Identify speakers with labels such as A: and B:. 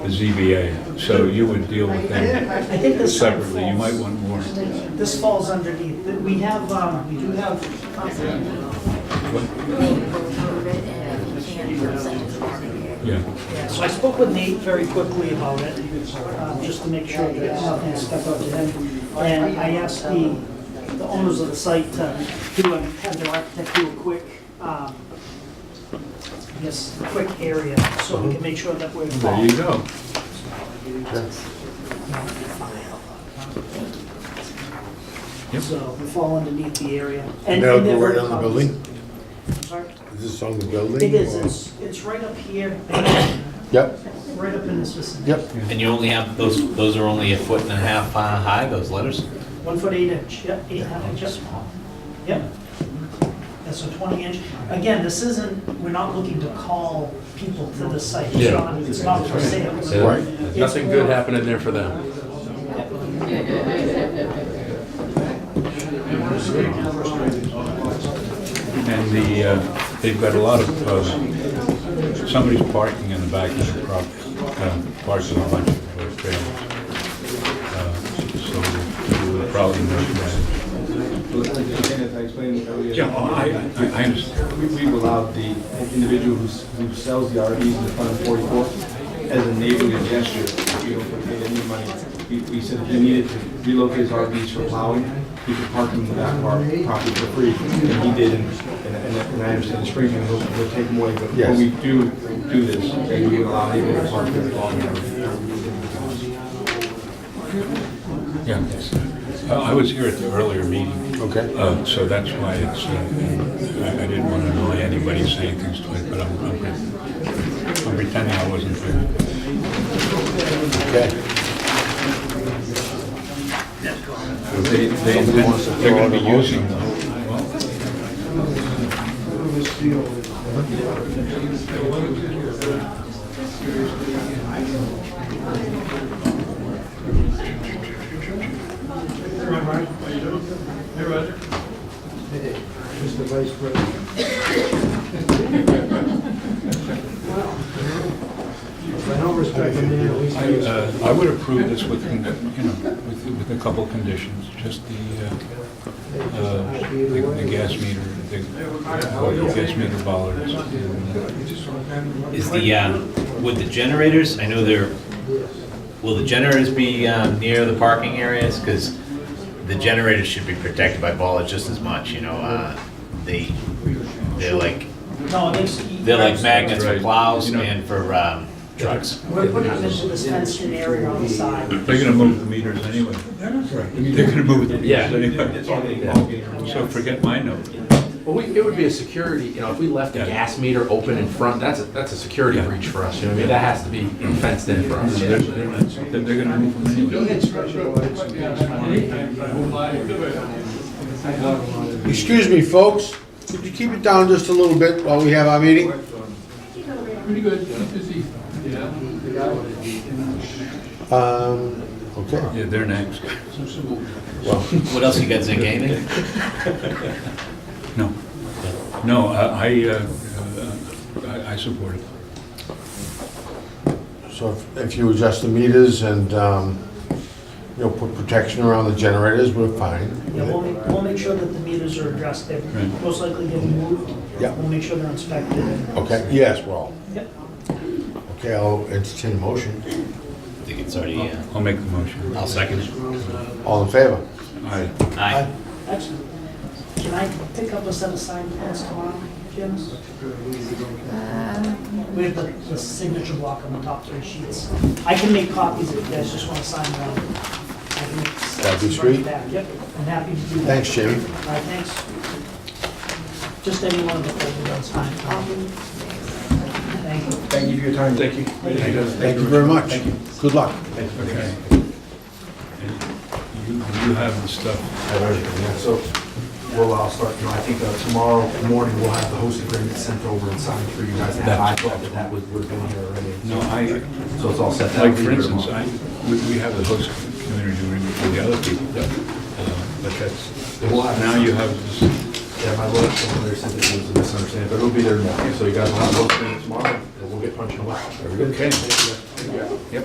A: the ZBA, so you would deal with them
B: I think this kind of
A: separately, you might
B: falls,
A: want more.
B: this falls underneath, that we have, um, we do have,
A: Yeah,
B: yeah, so I spoke with Nate very quickly about it, uh, just to make sure that nothing stuck up to him. And I asked the, the owners of the site to do, a- have their architect do a quick, um, I guess, a quick area, so we can make sure that we're.
A: there you go. Yep.
B: So we fall underneath the area. And-
C: Now
B: and they're
C: go right
B: very
C: on the
B: cognizant.
C: building?
B: Sorry?
C: Is this on the building?
B: It is,
C: or-
B: it's, it's right up here,
C: Yep,
B: right up in this vicinity.
C: yep.
D: And you only have, those, those are only a foot and a half uh, high, those letters?
B: One foot eight inch, yep, eight half inch, yep. Yep. That's a twenty inch. Again, this isn't, we're not looking to call people to the site. It's
E: Yeah.
B: not- It's not for sale.
C: Right.
E: There's Nothing good happening there for them.
A: And the, uh, they've got a lot of, uh, somebody's parking in the back of the property, um, parking a bunch of uh, trailers. Uh, So you would probably know that.
F: As I explained earlier.
A: Yeah, oh, I, I- I understand.
F: We- We've allowed the individual who's- who sells the RVs in the front of 44 as a neighborly gesture. We don't pay any money. We- We said if he needed to relocate his RVs for plowing, he could park them in the back of our property for free. And he did, and and- and I understand Springfield will will take them away. But
C: Yes.
F: when we do do this, then we would allow neighborhood parking for
A: Yeah. Uh, I was here at the earlier meeting.
C: Okay.
A: Uh, So that's why it's, uh, I I didn't want to annoy anybody saying things to it, but I'm I'm pre- I'm pretending I wasn't there.
C: Okay.
A: They, they,
C: wants to
A: they're
C: throw
A: going to be
C: out a motion.
A: using, well,
F: Mr. Vice President.
A: I, uh, I would approve this with, con- you know, with, with a couple conditions, just the, uh, uh, the the gas meter, the the gas meter bollards. and,
D: Is the, uh, would the generators, I know they're, will the generators be um, near the parking areas? Because the generators should be protected by bollards just as much, you know? uh, They, they're like,
B: No, it makes.
D: they're like magnets for
A: Right.
D: plows
A: You know-
D: and for um, trucks.
B: We're putting them into this fenced in area on the
A: uh,
B: side.
A: They're going to move the meters anyway. They're going to move the meters anyway. So forget my note.
E: Well, we, it would be a security, you know, if we left the
A: Yeah.
E: gas meter open in front, that's, a that's a security
A: Yeah.
E: breach for us, you know, what I mean, that has to be fenced in for us.
A: They're going to move them anyway.
C: Excuse me, folks, could you keep it down just a little bit while we have our meeting?
G: Pretty good, busy. Yeah.
C: Um, okay.
A: Yeah, they're next.
D: What else you got, Zink, anything?
A: No. No, I, I, uh, uh, I I support it.
C: So if- if you adjust the meters and, um, you know, put protection around the generators, we're fine.
B: Yeah, we'll make, we'll make sure that the meters are addressed, they're
A: Right.
B: most likely getting moved.
C: Yeah.
B: We'll make sure they're inspected.
C: Okay, yes, well,
B: Yep.
C: okay, I'll entertain a motion.
D: I think it's already, uh,
A: I'll make the motion.
D: I'll second it.
C: All in favor?
A: Aye.
D: Aye.
B: Excellent. Can I pick up a set of signed plans tomorrow, Janice? We have the, the signature block on the top three sheets. I can make copies if you guys just want to sign them. I can make sets
C: That'd be
B: and bring it
C: sweet.
B: back. Yep, I'm happy to do that.
C: Thanks, Jamie.
B: All right, thanks. Just any one of the folders, that's fine. Thank you.
F: Thank you for your time. Thank you.
C: Thank you very much. Good luck.
A: Okay. And You, you have the stuff.
F: have everything, yeah, so we'll, I'll start, you know, I think uh, tomorrow morning we'll have the host agreement sent over and signed for you guys. to have. I thought that that would, would have been here already.
A: No, I,
F: So it's all set.
A: like, for instance, I, we we have the host community agreement for the other people. Uh, But that's,
F: We'll have-
A: now you have this.
F: Yeah, my lawyer sent there, said it was a misunderstanding, but it'll be there tomorrow. So you guys will have the host agreement tomorrow, and we'll get punching away.
A: Okay. Yep.